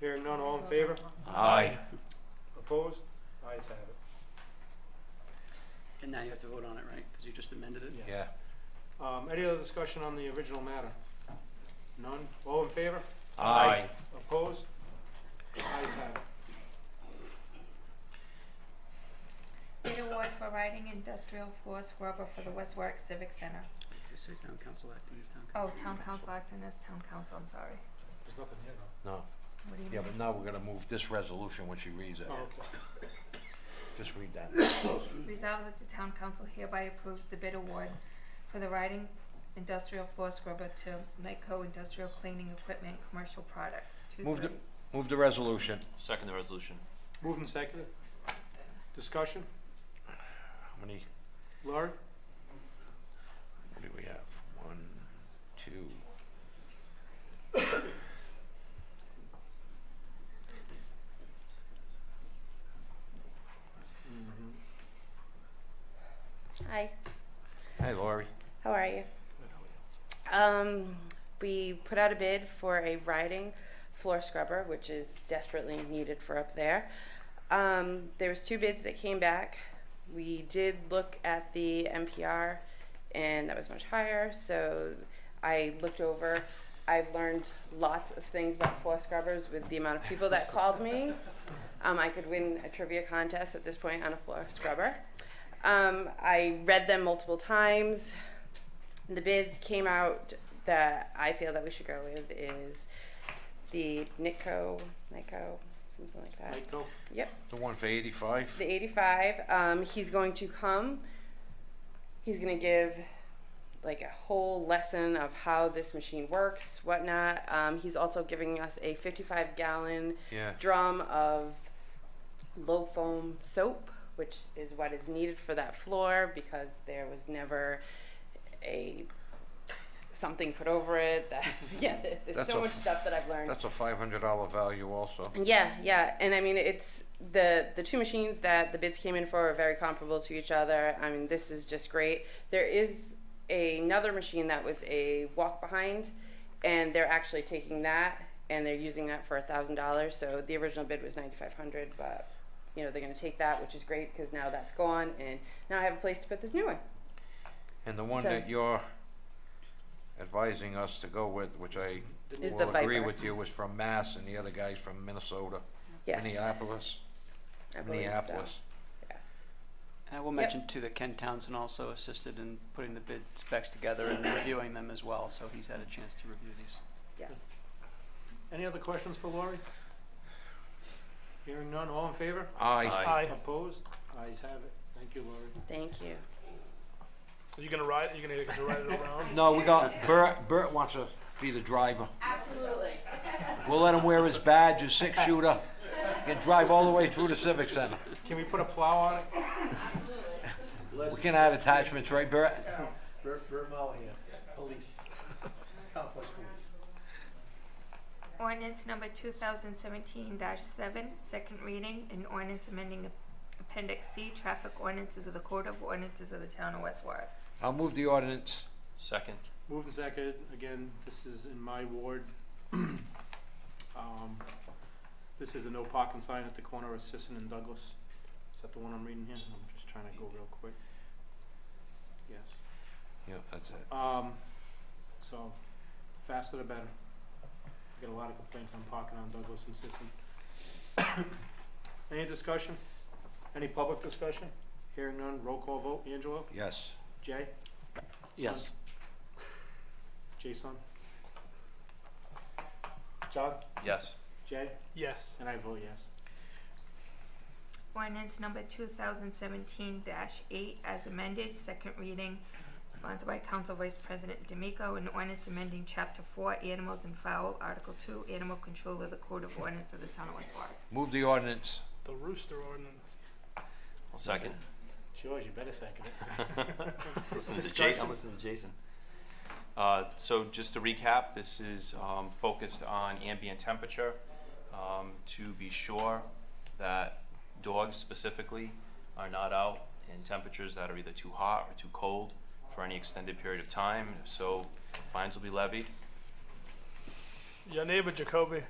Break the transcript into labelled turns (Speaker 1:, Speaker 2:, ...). Speaker 1: Hearing none, all in favor?
Speaker 2: Aye.
Speaker 1: Opposed? Ayes have it.
Speaker 3: And now you have to vote on it, right? Because you just amended it?
Speaker 1: Yes. Um, any other discussion on the original matter? None? All in favor?
Speaker 2: Aye.
Speaker 1: Opposed? Ayes have it.
Speaker 4: Bid award for riding industrial floor scrubber for the West Warwick Civic Center.
Speaker 3: This is town council acting as town council.
Speaker 4: Oh, town council acting as town council, I'm sorry.
Speaker 1: There's nothing here though.
Speaker 2: No,
Speaker 4: What do you
Speaker 2: yeah,
Speaker 4: mean?
Speaker 2: but now we're gonna move this resolution when she reads it.
Speaker 1: Oh, okay.
Speaker 2: Just read that.
Speaker 4: Resolved that the town council hereby approves the bid award for the riding industrial floor scrubber to Nyco Industrial Cleaning Equipment Commercial Products. Two
Speaker 2: Move the,
Speaker 4: thirty.
Speaker 2: move the resolution.
Speaker 5: Second the resolution.
Speaker 1: Moved and seconded. Discussion?
Speaker 2: How many,
Speaker 1: Laurie?
Speaker 2: what do we have? One, two.
Speaker 6: Mm-hmm.
Speaker 7: Hi,
Speaker 2: Hey, Lori.
Speaker 7: how are you? Um, we put out a bid for a riding floor scrubber, which is desperately needed for up there. Um, there was two bids that came back. We did look at the NPR, and that was much higher. So I looked over. I learned lots of things about floor scrubbers with the amount of people that called me. Um, I could win a trivia contest at this point on a floor scrubber. Um, I read them multiple times. The bid came out that I feel that we should go with is the Nitco, Nitco, something like that.
Speaker 1: Nyko?
Speaker 7: Yep,
Speaker 2: The one for eighty-five?
Speaker 7: the 85. Um, he's going to come. He's going to give like a whole lesson of how this machine works, whatnot. Um, he's also giving us a 55 gallon
Speaker 2: Yeah.
Speaker 7: drum of low foam soap, which is what is needed for that floor because there was never a something put over it. That, yeah, there- there's
Speaker 2: That's
Speaker 7: so
Speaker 2: a
Speaker 7: much
Speaker 2: f-
Speaker 7: stuff that I've learned.
Speaker 2: That's a five hundred dollar value also.
Speaker 7: Yeah, yeah, and I mean it's the the two machines that the bids came in for are very comparable to each other. I mean this is just great. There is another machine that was a walk behind, and they're actually taking that and they're using that for a thousand dollars. So the original bid was ninety five hundred, but you know they're going to take that, which is great because now that's gone, and now I have a place to put this new one.
Speaker 2: And the one
Speaker 7: So-
Speaker 2: that you're advising us to go with, which I
Speaker 7: Is the
Speaker 2: will agree
Speaker 7: Viper.
Speaker 2: with you, is from Mass and the other guy's from Minnesota.
Speaker 7: Yes,
Speaker 2: Minneapolis,
Speaker 7: I believe so.
Speaker 2: Minneapolis.
Speaker 3: And I will Uh, mention too that Ken Townsend also assisted in putting the bid specs together and reviewing them as well, so he's had a chance to review these.
Speaker 1: Any other questions for Laurie? Hearing none, all in favor?
Speaker 2: Aye.
Speaker 5: Aye.
Speaker 1: Opposed? Ayes have it. Thank you, Laurie.
Speaker 7: Thank you.
Speaker 6: Are you gonna ride? Are you gonna get to ride it around?
Speaker 2: No, we got, Bert, Bert wants to be the driver.
Speaker 7: Absolutely.
Speaker 2: We'll let him wear his badge, his six shooter, and drive all the way through the Civic Center.
Speaker 1: Can we put a plow on it?
Speaker 2: We can add attachments, right, Bert?
Speaker 8: Bert, Bert Mollahan, police, complex police.
Speaker 4: Ordinance number two thousand seventeen seven, second reading, an ordinance amending appendix C, traffic ordinances of the code of ordinances of the town of West Warwick.
Speaker 2: I'll move the ordinance.
Speaker 5: Second.
Speaker 1: Moved and seconded, again, this is in my ward. Um, This is a no parking sign at the corner of Sisson and Douglas. Is that the one I'm reading here? I'm just trying to go real quick. Yes,
Speaker 2: Yeah, that's it.
Speaker 1: um, so, faster the better. I Get a lot of complaints on parking on Douglas and Sisson. Any discussion? Any public discussion? Hearing none, roll call vote, Angelo?
Speaker 2: Yes.
Speaker 1: Jay?
Speaker 2: Yes.
Speaker 1: Son? Jason? John?
Speaker 5: Yes.
Speaker 1: Jay?
Speaker 6: Yes.
Speaker 1: And I vote yes.
Speaker 4: Ordinance number two thousand seventeen eight as amended, second reading, sponsored by Council Vice President D'Amico, an ordinance amending chapter four, animals and fowl, article two, animal control of the code of ordinance of the town of West Warwick.
Speaker 2: Move the ordinance.
Speaker 6: The rooster ordinance.
Speaker 5: I'll second.
Speaker 1: George, you better second it.
Speaker 5: Listen to Jason. I'm listening to Jason. Uh, so just to recap, this is um, focused on ambient temperature um, to be sure that dogs specifically are not out in temperatures that are either too hot or too cold for any extended period of time. If so, fines will be levied.
Speaker 6: Your neighbor Jacoby.